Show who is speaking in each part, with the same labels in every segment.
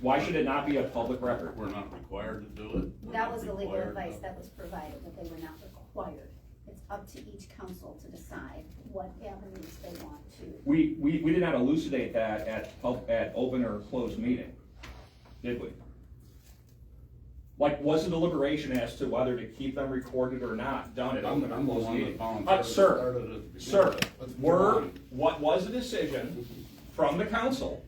Speaker 1: Why should it not be a public record?
Speaker 2: We're not required to do it. We're
Speaker 3: That
Speaker 2: not
Speaker 3: was the legal
Speaker 2: required
Speaker 3: advice
Speaker 2: to-
Speaker 3: that was provided, that they were not required. It's up to each council to decide what avenues they want to.
Speaker 1: We, we, we did not elucidate that at, pub- at open or closed meeting, did we? Like, was the deliberation as to whether to keep them recorded or not done at
Speaker 2: I'm,
Speaker 1: open
Speaker 2: I'm
Speaker 1: or closed
Speaker 2: the one that
Speaker 1: meeting?
Speaker 2: volunteered.
Speaker 1: Uh,
Speaker 2: to
Speaker 1: sir,
Speaker 2: start it at the beginning.
Speaker 1: sir,
Speaker 2: Let's move
Speaker 1: were,
Speaker 2: on.
Speaker 1: what was the decision from the council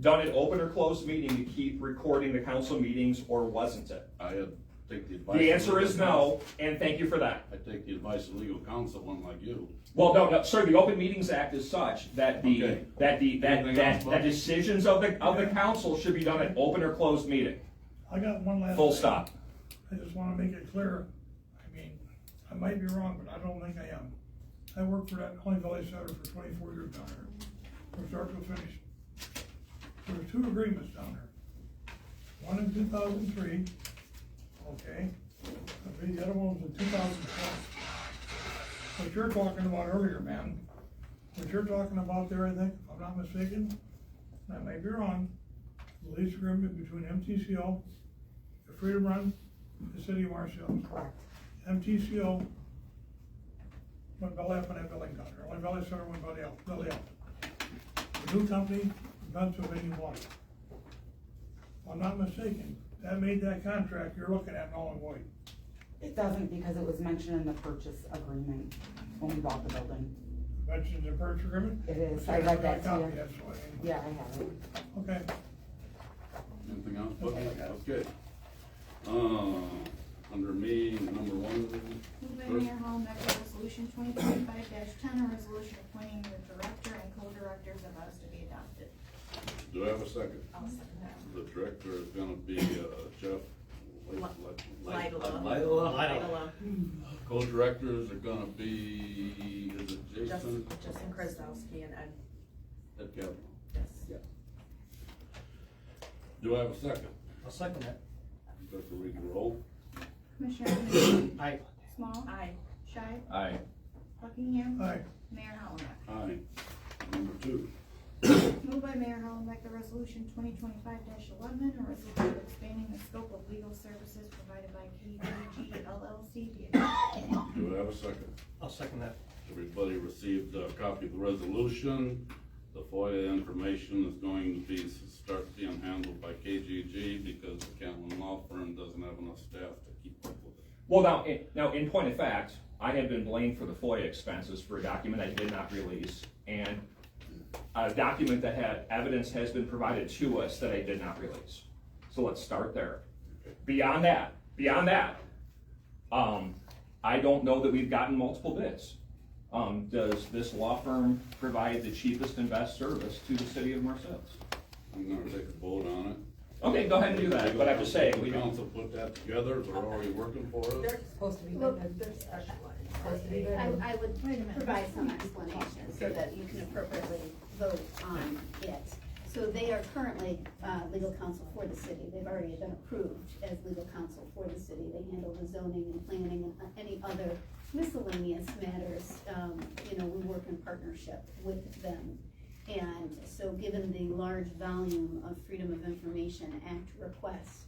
Speaker 1: done at open or closed meeting to keep recording the council meetings, or wasn't it?
Speaker 2: I had, take the advice.
Speaker 1: The
Speaker 2: of
Speaker 1: answer
Speaker 2: legal
Speaker 1: is no, and thank you for that.
Speaker 2: counsel. I take the advice of legal counsel, one like you.
Speaker 1: Well, no, no, sir, the Open Meetings Act is such that the,
Speaker 2: Okay.
Speaker 1: that the, that,
Speaker 2: Anything
Speaker 1: that,
Speaker 2: else, Bob?
Speaker 1: that decisions of the, of the council should be done at open or closed meeting,
Speaker 4: I got one last.
Speaker 1: full
Speaker 4: thing.
Speaker 1: stop.
Speaker 4: I just wanna make it clear, I mean, I might be wrong, but I don't think I am. I worked for that Holly Valley Center for twenty-four years down here, from start to finish. There were two agreements down there. One in two thousand three, okay, I believe the other one was in two thousand twelve. What you're talking about earlier, man, what you're talking about there, I think, if I'm not mistaken, and I may be wrong, the lease agreement between MTCO the Freedom Run, the City of Marshall, MTCO, went belly up on that building down there, Only Valley Center went belly up, belly up. The new company, Pennsylvania Water. If I'm not mistaken, that made that contract you're looking at null and void.
Speaker 5: It doesn't because it was mentioned in the purchase agreement when we bought the building.
Speaker 4: Mentioned the purchase agreement?
Speaker 5: It is. I read that,
Speaker 4: Copy,
Speaker 5: too.
Speaker 4: that's what I mean.
Speaker 5: Yeah, I have it.
Speaker 4: Okay,
Speaker 2: Anything else, but, okay. Uh, under me, number one.
Speaker 6: Move by
Speaker 2: first-
Speaker 6: Mayor Hall, Metro Resolution twenty twenty-five ten, a resolution appointing the director and co-directors of us to be adopted.
Speaker 2: Do I have a second?
Speaker 6: I'll second that.
Speaker 2: The director is gonna be, uh, Jeff. Li- Li- Li-
Speaker 7: Lidla.
Speaker 2: Lidla?
Speaker 7: Idella.
Speaker 2: Co-directors are gonna be, is it Jason?
Speaker 7: Justin Justin Krasowski and Ed,
Speaker 2: Ed Kavanaugh.
Speaker 7: yes.
Speaker 2: Do I have a second?
Speaker 8: I'll second that.
Speaker 2: Director, we can roll.
Speaker 6: Commissioner Evans?
Speaker 8: Aye.
Speaker 6: Small?
Speaker 7: Aye.
Speaker 6: Shy?
Speaker 1: Aye.
Speaker 6: Buckingham?
Speaker 4: aye,
Speaker 6: Mayor Hollenbeck?
Speaker 2: Aye. Number two.
Speaker 6: Move by Mayor Hollenbeck, the resolution twenty twenty-five eleven, a resolution expanding the scope of legal services provided by KDG LLC. be adopted.
Speaker 2: Do I have a second?
Speaker 8: I'll second that.
Speaker 2: Everybody received a copy of the resolution. The FOIA information is going to be, start being handled by KGG because the Catlin Law Firm doesn't have enough staff to keep up with it.
Speaker 1: Well, now, in, now, in point of fact, I have been blamed for the FOIA expenses for a document I did not release, and a document that had, evidence has been provided to us that I did not release. So let's start there. Beyond that, beyond that, um, I don't know that we've gotten multiple bids. Um, does this law firm provide the cheapest and best service to the city of Marcellus?
Speaker 2: I'm gonna take a vote on it.
Speaker 1: Okay, go ahead and do that, but I have to say, we
Speaker 2: The
Speaker 1: don't.
Speaker 2: council put that together, they're already working for us.
Speaker 5: They're supposed to be
Speaker 3: Well,
Speaker 5: bidded.
Speaker 3: there's-
Speaker 5: Supposed to be bidded.
Speaker 3: I, I would provide some explanation so that you can appropriately vote on it. So they are currently, uh, legal counsel for the city. They've already been approved as legal counsel for the city. They handle the zoning and planning and uh, any other miscellaneous matters. Um, you know, we work in partnership with them. And so given the large volume of Freedom of Information Act requests,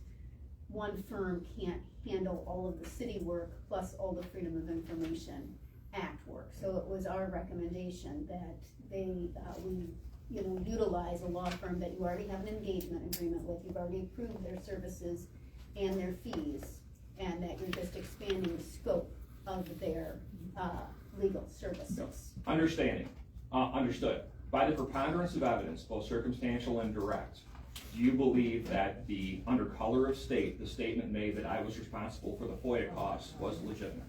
Speaker 3: one firm can't handle all of the city work plus all the Freedom of Information Act work. So it was our recommendation that they, uh, we, you know, utilize a law firm that you already have an engagement agreement with, you've already approved their services and their fees, and that you're just expanding the scope of their, uh, legal services.
Speaker 1: Understanding, uh, understood. By the preponderance of evidence, both circumstantial and direct, do you believe that the, under color of state, the statement made that I was responsible for the FOIA costs was legitimate?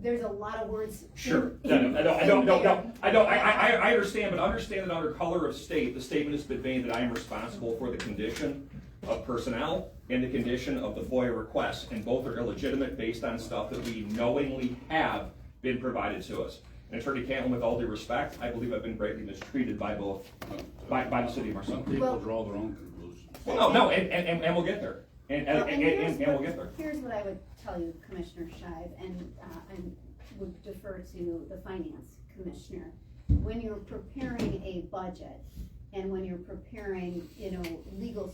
Speaker 3: There's a lot of words. in-
Speaker 1: Sure. No, no, I don't, I don't, no, no,
Speaker 3: in
Speaker 1: I don't, I, I, I- I understand, but understand that under color of state, the statement has been made that I am responsible for the condition of personnel and the condition of the FOIA requests, and both are illegitimate based on stuff that we knowingly have been provided to us. And Attorney Cantlin, with all due respect, I believe I've been greatly mistreated by both, by, by the city of
Speaker 2: Some
Speaker 1: Marcel.
Speaker 2: people
Speaker 3: Well-
Speaker 2: draw their own conclusions.
Speaker 1: Well, no, no, and, and, and- and we'll get there. And, and,
Speaker 3: Well,
Speaker 1: and,
Speaker 3: here's
Speaker 1: and- and we'll
Speaker 3: what-
Speaker 1: get there.
Speaker 3: Here's what I would tell you, Commissioner Shive, and, uh, I would defer to the finance commissioner. When you're preparing a budget, And when you're preparing, you know, legal